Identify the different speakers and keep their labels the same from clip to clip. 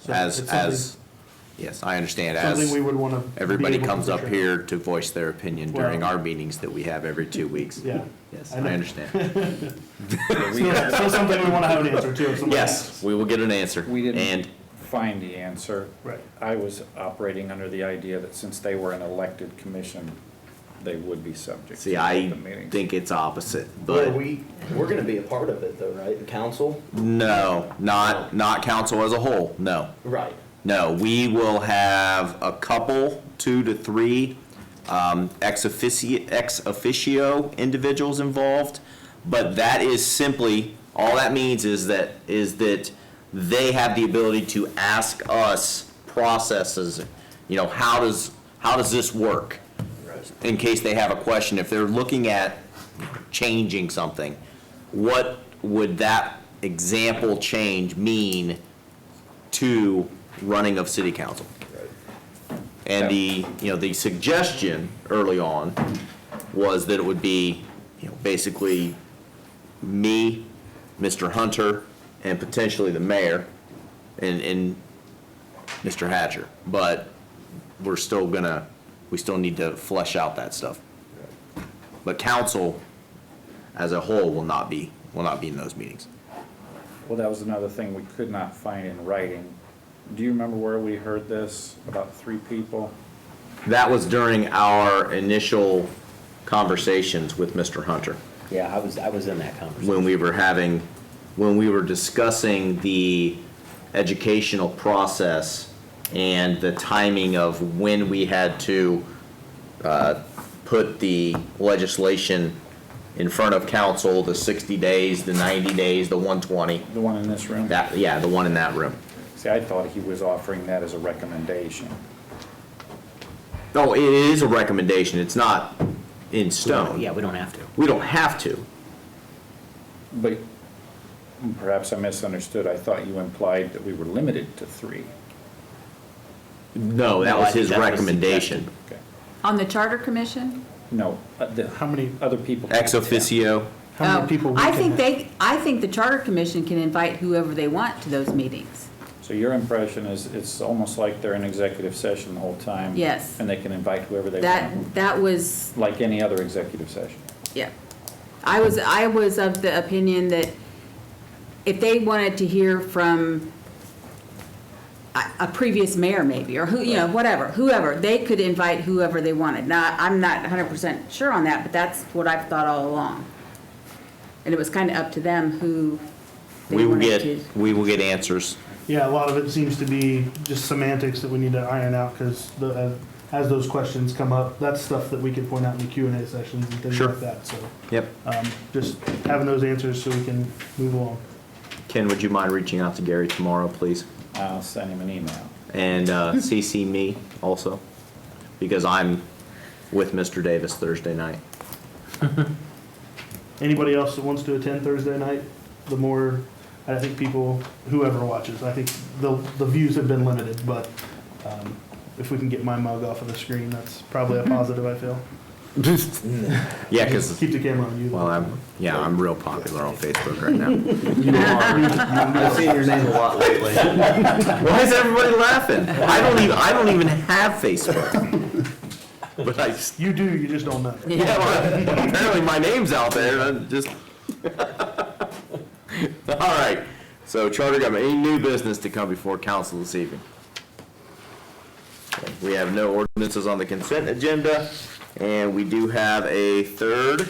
Speaker 1: So
Speaker 2: as,
Speaker 1: it's
Speaker 2: as, yes, I understand,
Speaker 1: something- Something we
Speaker 2: as
Speaker 1: would want to.
Speaker 2: everybody comes up here to voice their opinion during
Speaker 1: Well-
Speaker 2: our meetings that we have every two weeks.
Speaker 1: Yeah.
Speaker 2: Yes,
Speaker 1: I
Speaker 2: I
Speaker 1: know.
Speaker 2: understand.
Speaker 1: So so something we want to have an answer to if somebody
Speaker 2: Yes,
Speaker 1: asks.
Speaker 2: we will get an answer.
Speaker 3: We didn't
Speaker 2: And,
Speaker 3: find the answer.
Speaker 1: Right.
Speaker 3: I was operating under the idea that since they were an elected commission, they would be subject
Speaker 2: see,
Speaker 3: to
Speaker 2: I
Speaker 3: the meeting.
Speaker 2: think it's opposite,
Speaker 4: Well,
Speaker 2: but
Speaker 4: we, we're gonna be a part of it though, right, the council?
Speaker 2: no, not, not council as a whole, no.
Speaker 4: Right.
Speaker 2: No, we will have a couple, two to three, um, ex officio, ex officio individuals involved. But that is simply, all that means is that, is that they have the ability to ask us processes, you know, how does, how does this work? In case they have a question, if they're looking at changing something, what would that example change mean to running of city council. And the, you know, the suggestion early on was that it would be, you know, basically me, Mr. Hunter, and potentially the mayor, and, and Mr. Hatcher. But we're still gonna, we still need to flesh out that stuff. But council as a whole will not be, will not be in those meetings.
Speaker 3: Well, that was another thing we could not find in writing. Do you remember where we heard this, about three people?
Speaker 2: That was during our initial conversations with Mr. Hunter,
Speaker 4: Yeah, I was, I was in that conversation.
Speaker 2: when we were having, when we were discussing the educational process and the timing of when we had to uh, put the legislation in front of council, the 60 days, the 90 days, the 120,
Speaker 3: The one in this room?
Speaker 2: that, yeah, the one in that room.
Speaker 3: See, I thought he was offering that as a recommendation.
Speaker 2: No, Oh, it is a recommendation, it's not in stone.
Speaker 4: we don't have to.
Speaker 2: We don't have to.
Speaker 3: But perhaps I misunderstood. I thought you implied that we were limited to three.
Speaker 2: No, that
Speaker 4: No, I
Speaker 2: was
Speaker 4: think
Speaker 2: his
Speaker 4: that was
Speaker 2: recommendation.
Speaker 3: Okay.
Speaker 5: On the Charter Commission?
Speaker 3: No, uh, the, how many other people?
Speaker 2: Ex officio,
Speaker 1: How
Speaker 5: Oh,
Speaker 1: many people? we
Speaker 5: I
Speaker 1: can
Speaker 5: think
Speaker 1: have.
Speaker 5: they, I think the Charter Commission can invite whoever they want to those meetings.
Speaker 3: So your impression is it's almost like they're in executive session the whole time?
Speaker 5: Yes.
Speaker 3: And they can invite whoever they want,
Speaker 5: That, that was,
Speaker 3: like any other executive session?
Speaker 5: yeah. I was, I was of the opinion that if they wanted to hear from a, a previous mayor maybe, or who, you know, whatever, whoever, they could invite whoever they wanted. Now, I'm not hundred percent sure on that, but that's what I've thought all along. And it was kind of up to them who
Speaker 2: we
Speaker 5: they
Speaker 2: will
Speaker 5: wanted to.
Speaker 2: get, we will get answers.
Speaker 1: Yeah, a lot of it seems to be just semantics that we need to iron out because the, uh, as those questions come up, that's stuff that we can point out in the Q and A sessions and things
Speaker 2: Sure.
Speaker 1: like that. So,
Speaker 2: Yep.
Speaker 1: um, just having those answers so we can move along.
Speaker 2: Ken, would you mind reaching out to Gary tomorrow, please?
Speaker 3: I'll send him an email.
Speaker 2: And uh, CC me also, because I'm with Mr. Davis Thursday night.
Speaker 1: Anybody else that wants to attend Thursday night, the more, I think people, whoever watches, I think the, the views have been limited, but, um, if we can get my mug off of the screen, that's probably a positive, I feel.
Speaker 2: Yeah, because,
Speaker 1: Keep the camera on you.
Speaker 2: well, I'm, yeah, I'm real popular on Facebook right now.
Speaker 4: I've seen your name a lot lately.
Speaker 2: Why is everybody laughing? I don't even, I don't even have Facebook. But I, s-
Speaker 1: You do, you just don't know.
Speaker 2: yeah, well, apparently my name's out there, I just. All right, so charter government, any new business to come before council this evening? We have no ordinances on the consent agenda, and we do have a third,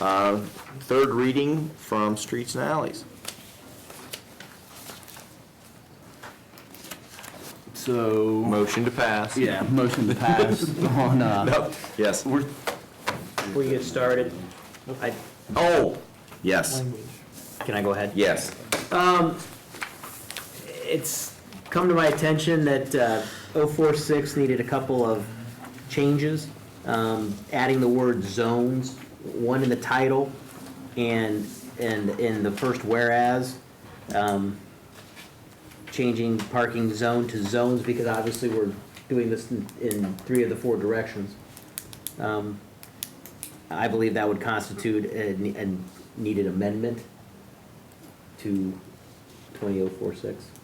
Speaker 2: uh, third reading from streets and alleys.
Speaker 6: So,
Speaker 2: Motion to pass.
Speaker 6: yeah, motion to pass on, uh,
Speaker 2: Nope, yes.
Speaker 6: we're,
Speaker 4: Before you get started, I,
Speaker 2: Oh, yes,
Speaker 4: can I go ahead?
Speaker 2: yes.
Speaker 4: It's come to my attention that uh, 046 needed a couple of changes, um, adding the word zones, one in the title and, and in the first whereas, um, changing parking zone to zones because obviously we're doing this in- in three of the four directions. Um, I believe that would constitute a oh a needed amendment to 20046.